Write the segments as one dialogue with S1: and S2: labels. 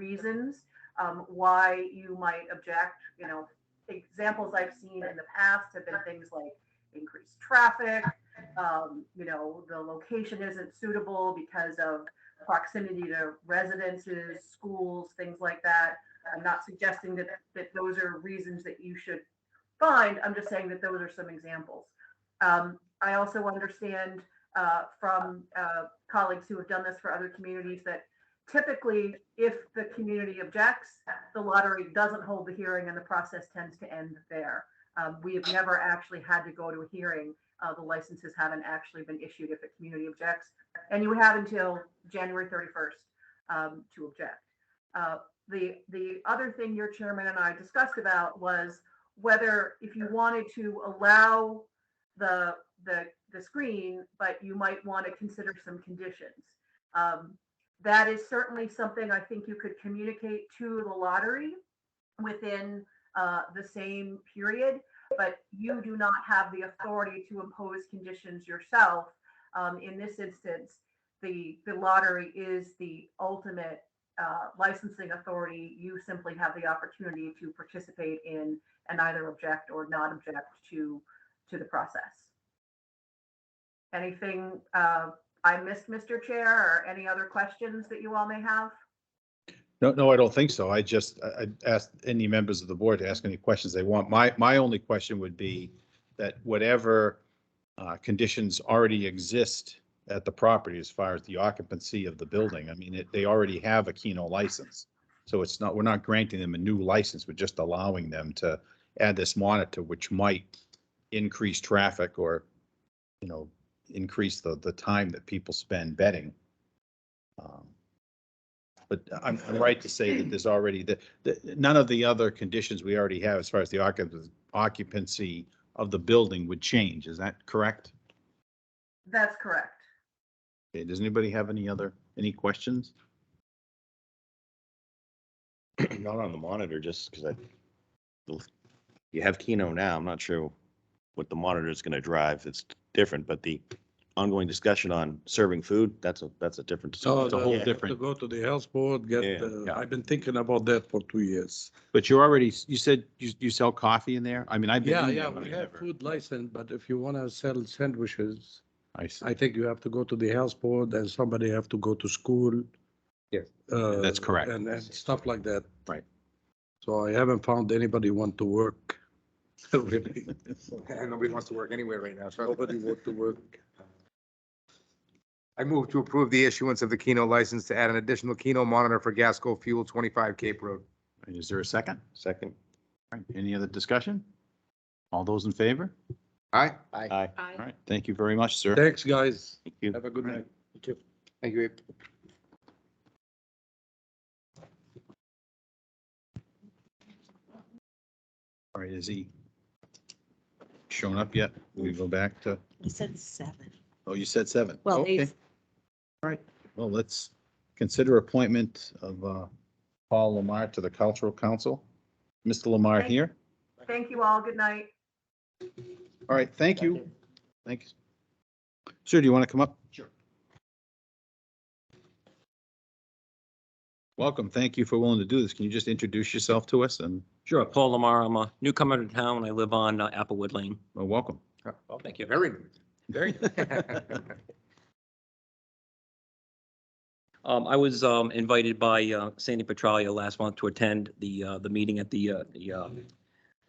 S1: reasons um, why you might object. You know, examples I've seen in the past have been things like increased traffic, um, you know, the location isn't suitable because of proximity to residences, schools, things like that. I'm not suggesting that, that those are reasons that you should find. I'm just saying that those are some examples. Um, I also understand uh, from uh, colleagues who have done this for other communities that typically, if the community objects, the lottery doesn't hold the hearing and the process tends to end there. Um, we have never actually had to go to a hearing. Uh, the licenses haven't actually been issued if a community objects. And you have until January 31st um, to object. Uh, the, the other thing your chairman and I discussed about was whether if you wanted to allow the, the, the screen, but you might want to consider some conditions. Um, that is certainly something I think you could communicate to the lottery within uh, the same period, but you do not have the authority to impose conditions yourself. Um, in this instance, the, the lottery is the ultimate uh, licensing authority. You simply have the opportunity to participate in and either object or not object to, to the process. Anything uh, I missed, Mr. Chair, or any other questions that you all may have?
S2: No, no, I don't think so. I just, I I asked any members of the board to ask any questions they want. My, my only question would be that whatever uh, conditions already exist at the property as far as the occupancy of the building, I mean, it- they already have a Keno license. So it's not, we're not granting them a new license, we're just allowing them to add this monitor, which might increase traffic or, you know, increase the, the time that people spend betting. Um, but I'm, I'm right to say that there's already, the, the, none of the other conditions we already have as far as the occup- occupancy of the building would change, is that correct?
S1: That's correct.
S2: Okay, does anybody have any other, any questions?
S3: not on the monitor, just because I, you have Keno now, I'm not sure what the monitor is gonna drive, it's different, but the ongoing discussion on serving food, that's a, that's a different, Oh, it's
S4: No,
S3: a
S4: Oh, the-
S3: whole
S4: you have To
S3: different.
S4: go to the health board, get,
S3: Yeah,
S4: uh,
S3: yeah.
S4: I've been thinking about that for two years.
S2: But you're already, you said you, you sell coffee in there? I mean, I've been
S4: Yeah,
S2: in
S4: yeah,
S2: there. but
S4: we
S2: I
S4: have
S2: never-
S4: food license, but if you want to sell sandwiches,
S2: I see.
S4: I uh, think you have to go to the health board and somebody have to go to school.
S2: Yes.
S4: uh,
S2: That's correct.
S4: And, and stuff like that.
S2: Right.
S4: So I haven't found anybody want to work. Really,
S5: And nobody wants to work anywhere right now, so
S4: nobody want to work.
S5: I move to approve the issuance of the Keno license to add an additional Keno monitor for Gasco Fuel 25 Cape Road.
S2: And Is there a second?
S3: Second.
S2: All right, Any other discussion? All those in favor?
S5: Aye?
S3: Aye.
S2: All right, thank you very much, sir.
S4: Thanks, guys.
S3: Thank you.
S4: Have a good night.
S5: Thank you, Abe.
S2: All right, is he shown up yet? We go back to,
S6: He said seven.
S2: oh, you said seven.
S6: Well,
S2: Okay.
S6: they,
S2: Well, let's consider appointment of uh, Paul Lamar to the Cultural Council. Mr. Lamar
S1: Thank-
S2: here.
S1: Thank you all. Good night.
S2: All right, thank you. Thanks. Sir, do you want to come up? Sure. Welcome. Thank you for willing to do this. Can you just introduce yourself to us and
S7: Sure, Paul Lamar, I'm a newcomer to town. I live on uh, Applewood Lane.
S2: well, welcome?
S7: Oh, thank you.
S5: Very good.
S7: Very
S5: good.
S7: Um, I was, um, invited by, uh, Sandy Petralia last month to attend the, uh, the meeting at the, uh, the, uh,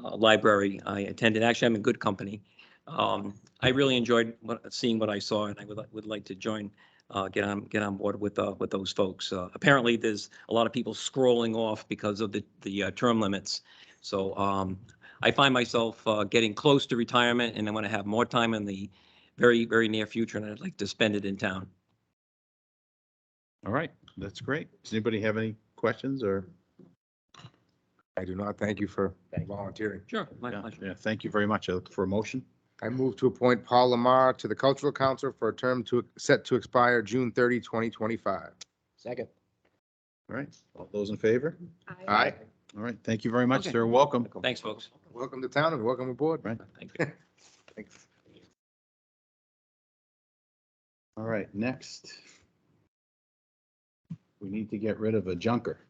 S7: uh, library. I attended, actually, I'm in good company. Um, I really enjoyed what, seeing what I saw and I would, would like to join, uh, get on, get on board with, uh, with those folks. Uh, apparently there's a lot of people scrolling off because of the, the uh, term limits. So, um, I find myself, uh, getting close to retirement and I want to have more time in the very, very near future and I'd like to spend it in town.
S2: All right, that's great. Does anybody have any questions or?
S5: I do not thank you for volunteering.
S7: Sure, my
S2: Yeah,
S7: pleasure.
S2: yeah, Thank you very much. I look for a motion.
S5: I move to appoint Paul Lamar to the Cultural Council for a term to, set to expire June 30, 2025.
S3: Second.
S2: All right, all those in favor?
S5: Aye.
S2: All right, thank you very much,
S7: Okay.
S2: sir. Welcome.
S7: Thanks, folks.
S5: Welcome to town and welcome aboard.
S7: Thank you.
S2: All right, next. We need to get rid of a junker.